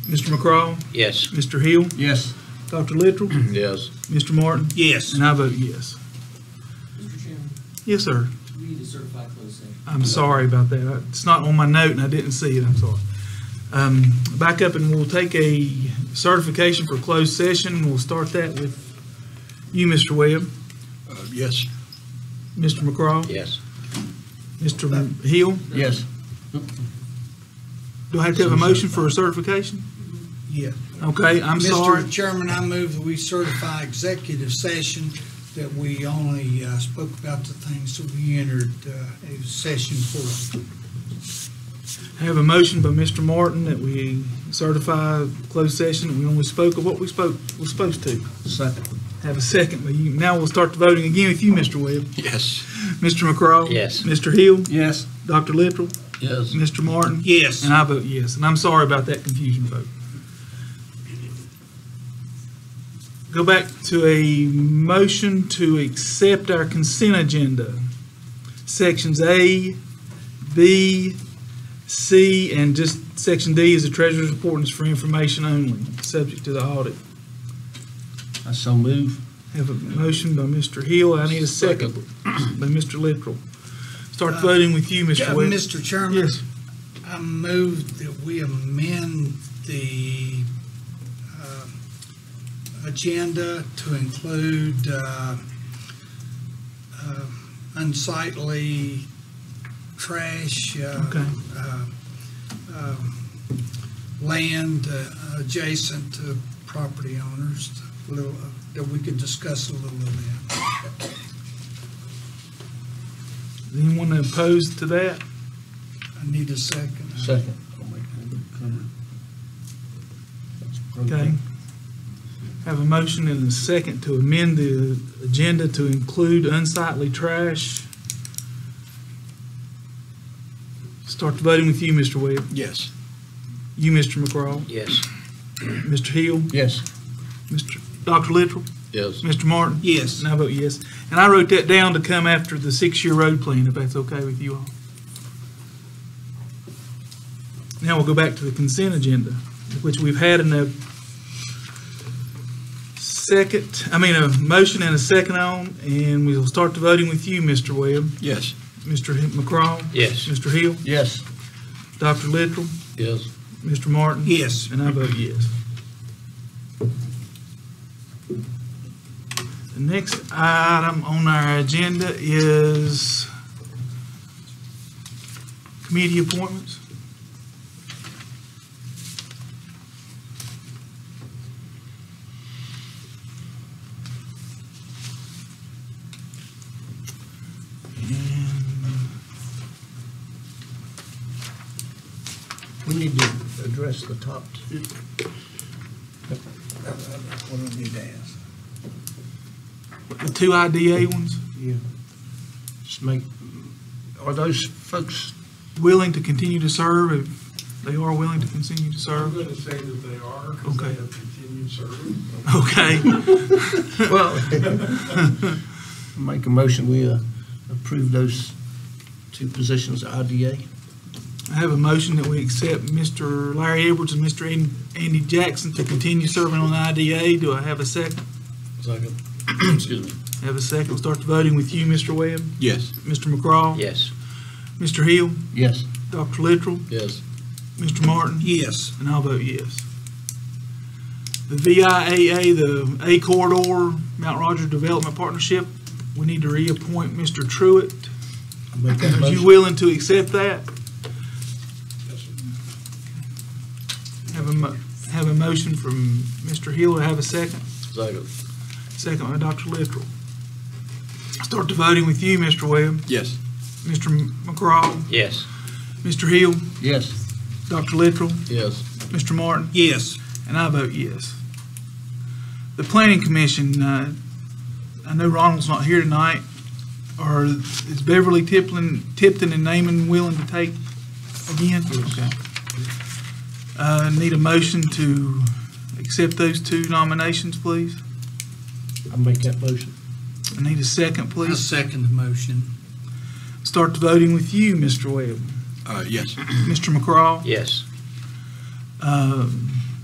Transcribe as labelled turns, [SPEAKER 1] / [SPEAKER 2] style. [SPEAKER 1] Mr. McCraw,
[SPEAKER 2] Yes.
[SPEAKER 1] Mr. Hill,
[SPEAKER 3] Yes.
[SPEAKER 1] Dr. Littrell,
[SPEAKER 2] Yes.
[SPEAKER 1] Mr. Martin,
[SPEAKER 3] Yes.
[SPEAKER 1] and I vote yes.
[SPEAKER 4] Mr. Chairman,
[SPEAKER 1] Yes, sir.
[SPEAKER 4] we need to certify closed session.
[SPEAKER 1] I'm sorry about that. It's not on my note and I didn't see it. I'm sorry. Um, back up and we'll take a certification for closed session. We'll start that with you, Mr. Webb,
[SPEAKER 3] Yes.
[SPEAKER 1] Mr. McCraw,
[SPEAKER 2] Yes.
[SPEAKER 1] Mr. Hill.
[SPEAKER 3] Yes.
[SPEAKER 1] Do I have to have a motion for a certification?
[SPEAKER 5] Yeah.
[SPEAKER 1] Okay, I'm sorry.
[SPEAKER 5] Mr. Chairman, I move that we certify executive session that we only uh, spoke about the things that we entered uh, a session for.
[SPEAKER 1] I have a motion by Mr. Martin that we certify closed session and we only spoke of what we spoke, was supposed to.
[SPEAKER 3] Second.
[SPEAKER 1] Have a second, but you, now we'll start the voting again with you, Mr. Webb.
[SPEAKER 3] Yes.
[SPEAKER 1] Mr. McCraw?
[SPEAKER 2] Yes.
[SPEAKER 1] Mr. Hill?
[SPEAKER 3] Yes.
[SPEAKER 1] Dr. Littrell?
[SPEAKER 3] Yes.
[SPEAKER 1] Mr. Martin?
[SPEAKER 3] Yes.
[SPEAKER 1] And I vote yes, and I'm sorry about that confusion vote. Go back to a motion to accept our consent agenda. Sections A, B, C, and just section D is the treasurer's report and it's for information only, subject to the audit.
[SPEAKER 3] I so move.
[SPEAKER 1] Have a motion by Mr. Hill, I need a second by Mr. Littrell. Start voting with you, Mr.
[SPEAKER 5] Uh,
[SPEAKER 1] Webb.
[SPEAKER 5] Mr. Chairman,
[SPEAKER 1] Yes,
[SPEAKER 5] I move that we amend the um, agenda to include uh, uh, unsightly trash. uh,
[SPEAKER 1] Okay.
[SPEAKER 5] uh, um, land uh, adjacent to property owners, a little, uh, that we could discuss a little of that.
[SPEAKER 1] Does anyone opposed to that?
[SPEAKER 5] I need a second.
[SPEAKER 3] Second. Oh, I'll make that comment. That's
[SPEAKER 1] Okay.
[SPEAKER 3] appropriate.
[SPEAKER 1] Have a motion and a second to amend the agenda to include unsightly trash. Start the voting with you, Mr. Webb,
[SPEAKER 3] Yes.
[SPEAKER 1] you, Mr. McCraw,
[SPEAKER 2] Yes.
[SPEAKER 1] Mr. Hill,
[SPEAKER 3] Yes.
[SPEAKER 1] Mr. Dr. Littrell,
[SPEAKER 2] Yes.
[SPEAKER 1] Mr. Martin.
[SPEAKER 5] Yes.
[SPEAKER 1] And I vote yes. And I wrote that down to come after the six-year road plan, if that's okay with you all. Now we'll go back to the consent agenda, which we've had in a second, I mean, a motion and a second on, and we'll start the voting with you, Mr. Webb,
[SPEAKER 3] Yes.
[SPEAKER 1] Mr. McCraw.
[SPEAKER 2] Yes.
[SPEAKER 1] Mr. Hill,
[SPEAKER 3] Yes.
[SPEAKER 1] Dr. Littrell,
[SPEAKER 2] Yes.
[SPEAKER 1] Mr. Martin.
[SPEAKER 5] Yes.
[SPEAKER 1] And I vote yes. The next item on our agenda is committee appointments. And
[SPEAKER 3] We need to address the top two. What do we need to ask?
[SPEAKER 1] the two IDA ones,
[SPEAKER 3] Yeah. Just make, are those folks,
[SPEAKER 1] willing to continue to serve, if they are willing to continue to
[SPEAKER 6] I'm
[SPEAKER 1] serve.
[SPEAKER 6] going to say that they are, because
[SPEAKER 1] Okay.
[SPEAKER 6] they have continued serving.
[SPEAKER 1] Okay.
[SPEAKER 3] well, make a motion, we uh, approve those two positions, IDA?
[SPEAKER 1] I have a motion that we accept Mr. Larry Edwards and Mr. An- Andy Jackson to continue serving on the IDA. Do I have a second?
[SPEAKER 3] Second. Excuse me.
[SPEAKER 1] Have a second. We'll start the voting with you, Mr. Webb,
[SPEAKER 3] Yes.
[SPEAKER 1] Mr. McCraw.
[SPEAKER 2] Yes.
[SPEAKER 1] Mr. Hill,
[SPEAKER 3] Yes.
[SPEAKER 1] Dr. Littrell,
[SPEAKER 2] Yes.
[SPEAKER 1] Mr. Martin.
[SPEAKER 5] Yes.
[SPEAKER 1] And I'll vote yes. The VIAA, the A Corridor, Mount Rogers Development Partnership, we need to reappoint Mr. Truitt.
[SPEAKER 3] Make that
[SPEAKER 1] Are you
[SPEAKER 3] motion.
[SPEAKER 1] willing to accept that? Have a, mo- have a motion from Mr. Hill, have a second?
[SPEAKER 2] Second.
[SPEAKER 1] Second by Dr. Littrell. Start the voting with you, Mr. Webb,
[SPEAKER 3] Yes.
[SPEAKER 1] Mr. McCraw,
[SPEAKER 2] Yes.
[SPEAKER 1] Mr. Hill,
[SPEAKER 3] Yes.
[SPEAKER 1] Dr. Littrell,
[SPEAKER 2] Yes.
[SPEAKER 1] Mr. Martin.
[SPEAKER 5] Yes.
[SPEAKER 1] And I vote yes. The planning commission, uh, I know Ronald's not here tonight, or is Beverly Tipton, Tipton and Naaman willing to take again? Okay. Uh, need a motion to accept those two nominations, please?
[SPEAKER 3] I make that motion.
[SPEAKER 1] I need a second,
[SPEAKER 5] I
[SPEAKER 1] please.
[SPEAKER 5] second the motion.
[SPEAKER 1] Start the voting with you, Mr. Webb,
[SPEAKER 3] Uh, yes.
[SPEAKER 1] Mr. McCraw,
[SPEAKER 2] Yes.
[SPEAKER 1] um,